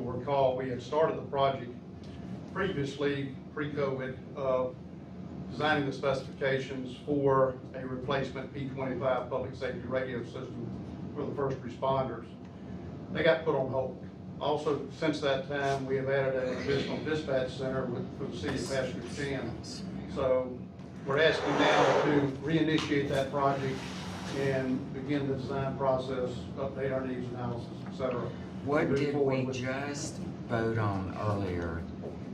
recall, we had started the project previously, pre-COVID, of designing the specifications for a replacement P twenty-five public safety radio system for the first responders. They got put on hold. Also, since that time, we have added an additional dispatch center with, for the city of Pasco Chan. So we're asking now to reinitiate that project and begin the design process, update our needs analysis, et cetera. What Move did forward we with- just vote on earlier?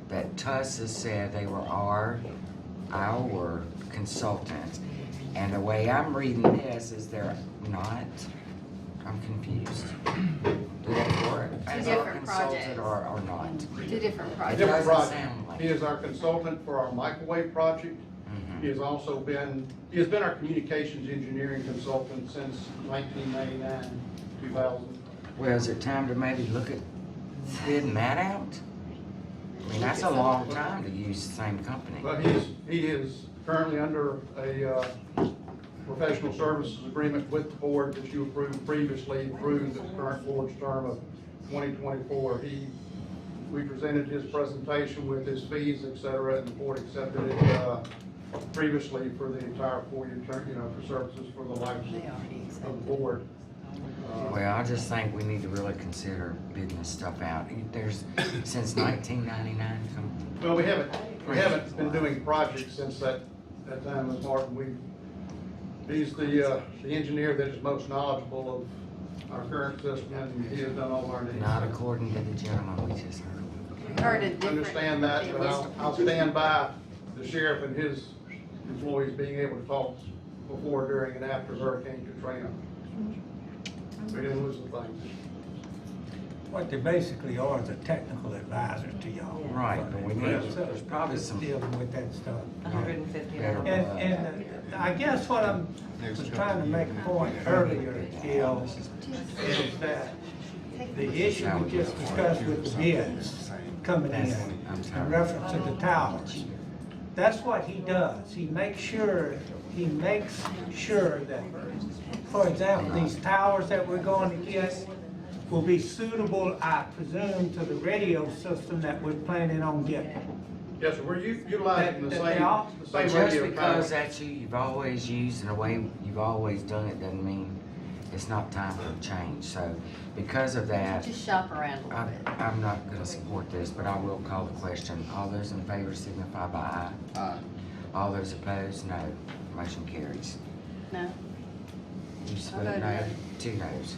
That Tussa said they were our, our consultants. And the way I'm reading this is they're not, I'm confused. Do they work as Two our different consultant projects. or, or not? Two different A projects. Different Doesn't project. sound like He is our consultant for our microwave project. Mhm. He has also been, he has been our communications engineering consultant since nineteen ninety-nine, two thousand. Well, is it time to maybe look at bidding that out? I mean, that's a long time to use the same company. But he's, he is currently under a, uh, professional services agreement with the board that you approved previously through the current board's term of twenty twenty-four. He, we presented his presentation with his fees, et cetera, and the board accepted it, uh, previously for the entire four-year term, you know, for services for the life of the board. Uh, Well, I just think we need to really consider bidding this stuff out. There's, since nineteen ninety-nine, Well, we haven't, we haven't been doing projects since that, that time, Ms. Martin. We, he's the, uh, the engineer that is most knowledgeable of our current system, and he has done all our needs. not according to the gentleman we just heard. We heard a different. Understand that, it but was- I'll, I'll stand by the sheriff and his employees being able to talk before, during, and after Hurricane Katrina. We didn't lose the thing. What they basically are is a technical advisor to y'all. Right, but we need- there's probably some- Dealing with that stuff. hundred and fifty Better. And, and I guess what I'm, was trying to make a point earlier, Gil, is that the issue we just discussed with the bids coming in, in reference to the towers. That's what he does. He makes sure, he makes sure that, for example, these towers that we're going to get will be suitable, I presume, to the radio system that we're planning on getting. Yes, sir, we're u- utilizing the That- same, that they all- the But same just radio. because tower. that's you, you've always used and the way you've always done it doesn't mean it's not time for a change. So because of that, Just shop around a little I, bit. I'm not gonna support this, but I will call the question. All those in favor signify by aye. Aye. All those opposed, no. Motion carries. No, You I voted voted no, no. two no's.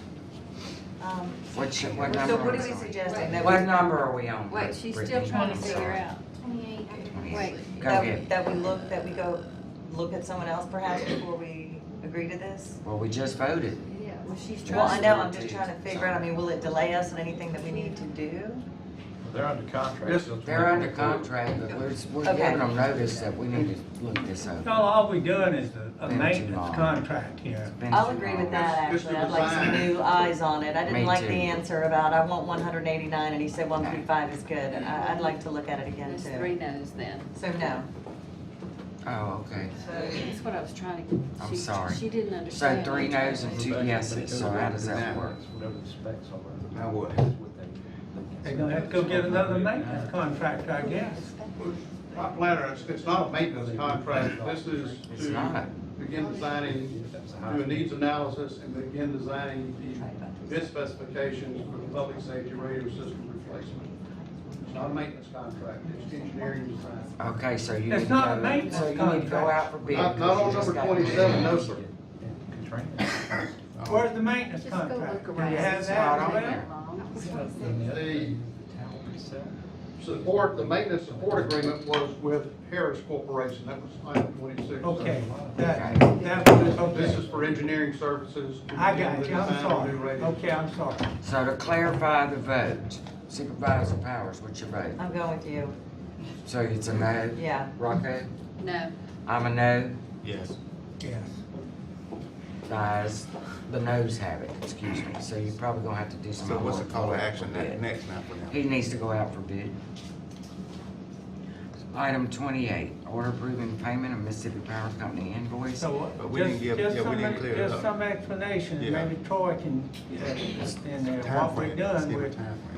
Um, What, sh- what number? So what are are we we on? suggesting? That What we- number are we on? wait, she's still Brittany? trying I'm to figure sorry. out. Twenty-eight, I can. Wait. Go that- ahead. That we look, that we go, look at someone else perhaps before we agree to this? Well, we just voted. Yeah. Well, she's Yeah. Well, I trying. know, I'm just trying to figure out, I mean, will it delay us in anything that we need to do? They're under contract. Yes, till They're under 2024. contract, but we're, we're Okay. giving them notice that we need to look this over. No, all we doing is a- a Been too long. maintenance contract here. It's been I'll too agree long. with that, Just- just actually. the I'd like some design. new eyes on it. I Me didn't like too. the answer about, I want one hundred and eighty-nine, and he said one through five is good. I, I'd like to look at it again There's three too. no's then. So no. Oh, okay. That's what I was trying to. I'm she- sorry. She didn't So understand. three no's and two yeses, so how does that work? Whatever the specs are. Now what? That's what they- They're they can- gonna have to go get another maintenance contractor, I guess. My planner, it's, it's not a maintenance contract, this is It's to not. begin designing, do a needs analysis and begin designing the bid specifications for the public safety radio system replacement. It's not a maintenance contract, it's engineering design. Okay, so you It's need to not a go, maintenance so you need to go contract. out for bid. Not, not because on you just number got- twenty-seven, no, sir. Contract. Where's the maintenance Just go contract? look Do you around. have It's that? not on Well, there. The Tower itself. support, the maintenance support agreement was with Harris Corporation, that was item twenty-six. Okay, that, Okay. that was, This is okay. for engineering services. to I begin got the you, I'm design of sorry. new radio Okay, I'm sorry. So to clarify the vote, Supervisor Powers, what's your vote? I'm going with you. So it's a no? Yeah. Rocco? No, I'm a no. Yes. Yes. Guys, the noes have it, excuse me, so you're probably gonna have to do some. So what's the homework call to for action bid. that next now for them? He needs to go out for bid. Item twenty-eight, order approving payment of Mississippi Power Company invoice. So what? But we didn't just- give- just yeah, we some- didn't clear it Just up. some explanation, Yeah. maybe Troy can, uh, in there, Time what we're frame. Let's doing give it with time